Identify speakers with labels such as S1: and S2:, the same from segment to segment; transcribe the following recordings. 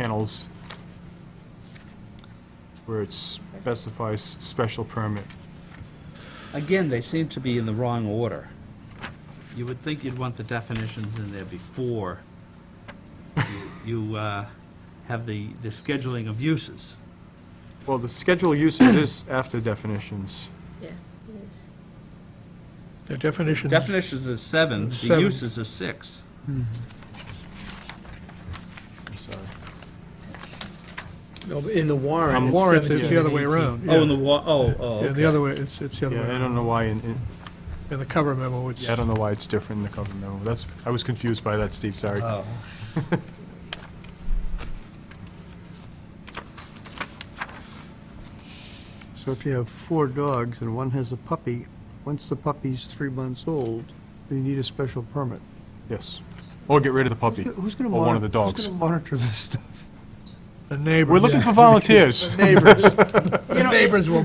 S1: kennels, where it specifies special permit.
S2: Again, they seem to be in the wrong order. You would think you'd want the definitions in there before you- you uh, have the, the scheduling of uses.
S1: Well, the schedule of uses is after definitions.
S3: Yeah, it is.
S4: The definition,
S2: Definitions are seven, the
S4: Seven.
S2: uses are six.
S1: I'm sorry.
S4: no, in the warrant.
S1: Um,
S4: it's
S1: warrant,
S4: 17
S1: it's
S4: and
S1: the
S2: other
S1: way
S4: 18.
S1: around,
S2: Oh, in the,
S4: Yeah.
S2: wa- oh, oh,
S4: Yeah,
S2: okay.
S4: the other way, it's, it's
S5: Oh,
S4: the other way
S1: Yeah, I
S4: around.
S1: don't know why, in- in-
S4: In the cover memo, it's,
S1: I don't know why it's different in the cover memo. That's, I was confused by that, Steve, sorry.
S2: Oh.
S5: So if you have four dogs and one has a puppy, once the puppy's three months old, they need a special permit.
S1: Yes. Or get rid of the puppy.
S5: Who's gonna
S1: Or one
S5: monitor,
S1: of the
S5: who's
S1: dogs.
S5: gonna monitor this stuff?
S4: the neighbors.
S1: We're looking
S4: yeah.
S1: for volunteers.
S5: Neighbors,
S2: You know, it-
S4: Neighbors will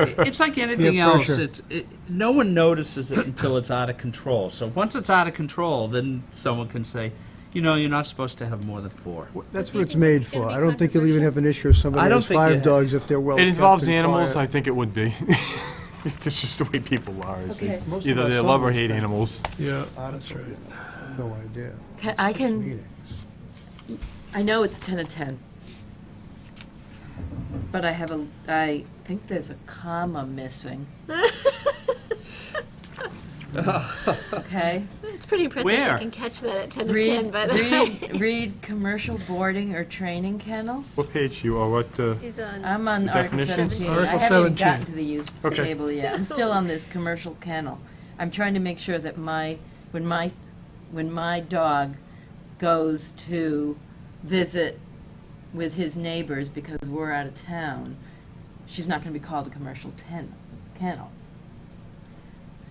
S4: it.
S2: It's like anything else.
S5: pressure.
S2: It's, it, no one notices it until it's out of control. So once it's out of control, then someone can say, you know, you're not supposed to have more than four.
S5: that's what
S3: Do you
S5: it's
S3: think
S5: made
S3: it's gonna
S5: for.
S3: be
S5: I don't think you'll even have an issue if
S2: I
S5: somebody
S2: don't
S5: has
S2: think you
S5: five
S2: ha-
S5: dogs if they're well
S1: It
S5: kept
S1: involves
S5: and
S1: animals, I
S5: quiet.
S1: think it would be. It's just the way people are, is they
S3: Okay.
S5: Most of
S1: either
S5: our
S1: they love or
S5: summers
S1: hate
S5: spend
S1: animals.
S4: Yeah, that's right.
S5: No idea.
S3: Ca- I
S5: Six
S3: can-
S5: meetings.
S3: I know it's ten to ten. But I have a, I think there's a comma missing. Okay?
S6: It's pretty impressive
S2: Where?
S6: she can catch that at 10 to 10,
S3: Read,
S6: but
S3: read, read commercial boarding or training kennel.
S1: What page you, or what, uh,
S6: she's on.
S3: I'm on
S1: The
S3: Article
S1: definitions?
S3: seventeen. I
S4: Article 17.
S3: haven't gotten to the use
S1: Okay.
S3: table yet. I'm still on this commercial kennel. I'm trying to make sure that my, when my, when my dog goes to visit with his neighbors because we're out of town, she's not gonna be called a commercial ten, kennel. So,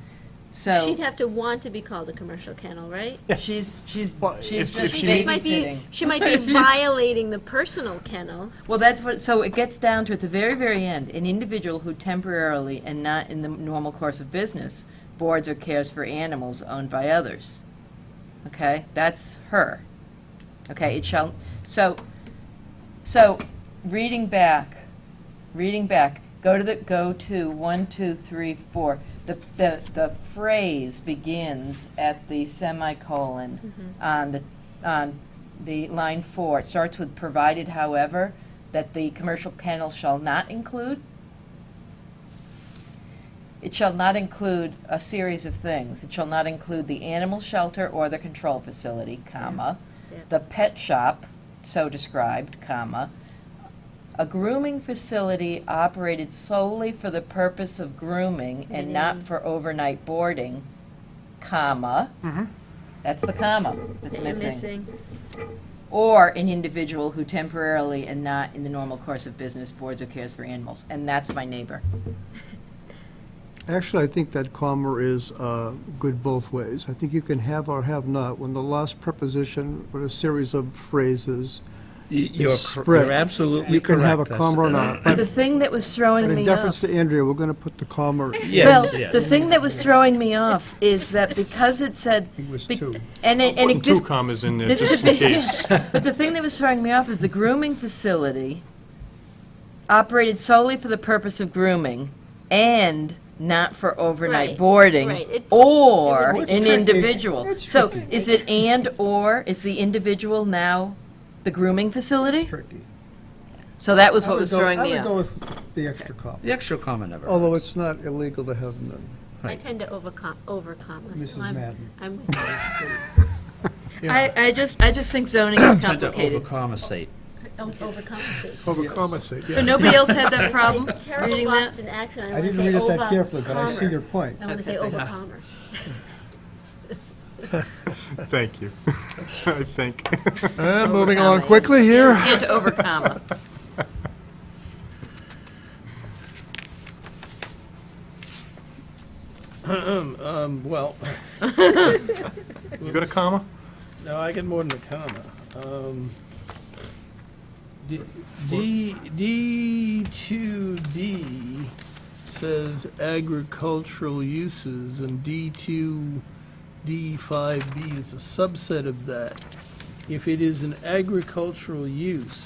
S6: She'd have to want to be called a commercial kennel, right?
S3: she's, she's,
S1: Well,
S3: she's
S1: if-
S6: But
S1: if
S3: just
S6: she just might be
S3: babysitting.
S6: she might be violating the personal kennel.
S3: Well, that's what, so it gets down to, at the very, very end, an individual who temporarily and not in the normal course of business boards or cares for animals owned by others. Okay, that's her. Okay, it shall, so, so, reading back, reading back, go to the, go to one, two, three, four. The, the, the phrase begins at the semicolon
S6: Mm-hmm.
S3: on the, on the line four. It starts with provided however, that the commercial kennel shall not include. It shall not include a series of things. It shall not include the animal shelter or the control facility, comma,
S6: Yeah.
S3: the pet shop, so described, comma, a grooming facility operated solely for the purpose of grooming and not for overnight boarding, comma.
S5: Mm-hmm.
S3: That's the comma that's or an individual who temporarily and not in the normal course of business boards or cares for animals. And that's my neighbor.
S5: Actually, I think that comma is uh, good both ways. I think you can have or have not when the last preposition or a series of phrases,
S2: You're,
S5: It's spread.
S2: you're absolutely correct.
S5: you can have a
S2: That's-
S5: comma or not. But
S3: The thing that was throwing
S5: but in
S3: me off.
S5: deference to Andrea, we're going to put the comma.
S2: Yes,
S3: well,
S2: yes.
S3: the thing that was throwing me off is that because it said,
S5: It was
S3: be-
S5: two.
S3: and it, and
S1: putting
S3: it
S1: two
S3: just,
S1: commas in there
S3: this is
S1: just
S3: a
S1: in
S3: big-
S1: case.
S3: but the thing that was throwing me off is the grooming facility operated solely for the purpose of grooming and not for overnight
S6: Right,
S3: boarding
S6: right. It-
S3: or
S6: it would-
S3: an
S5: It's tricky.
S3: individual.
S5: It's
S3: so is it and or is the individual now the grooming facility?
S5: Tricky.
S3: So that was
S5: I
S3: what
S5: would
S3: was
S5: go-
S3: throwing me
S5: I would go
S3: off.
S5: with the extra comma.
S2: The extra comma never
S5: Although
S2: hurts.
S5: it's not illegal to have none.
S6: I tend to overcom- overcomma.
S5: Mrs.
S6: So I'm,
S5: Madden.
S6: I'm with you.
S3: I, I just I just think zoning is
S2: Tend to
S3: complicated.
S2: overcompensate.
S6: Don't overcompensate.
S4: Overcompensate,
S3: So
S4: yeah.
S3: nobody else had that problem
S6: Like a terrible
S3: reading that?
S6: Boston accent. I,
S5: I
S6: want to
S5: didn't
S6: say
S5: read it
S6: over-
S5: that carefully, but I see
S6: commer.
S5: your point.
S6: I want to say overcommer.
S1: Thank you. I think.
S4: And moving along
S3: Overcomming.
S4: quickly here.
S3: And over comma.
S7: Um, well,
S1: You got a comma?
S7: no, I get more than a comma. Um, D, D, D two D says agricultural uses, and D two, D five B is a subset of that.
S5: if it is an agricultural use,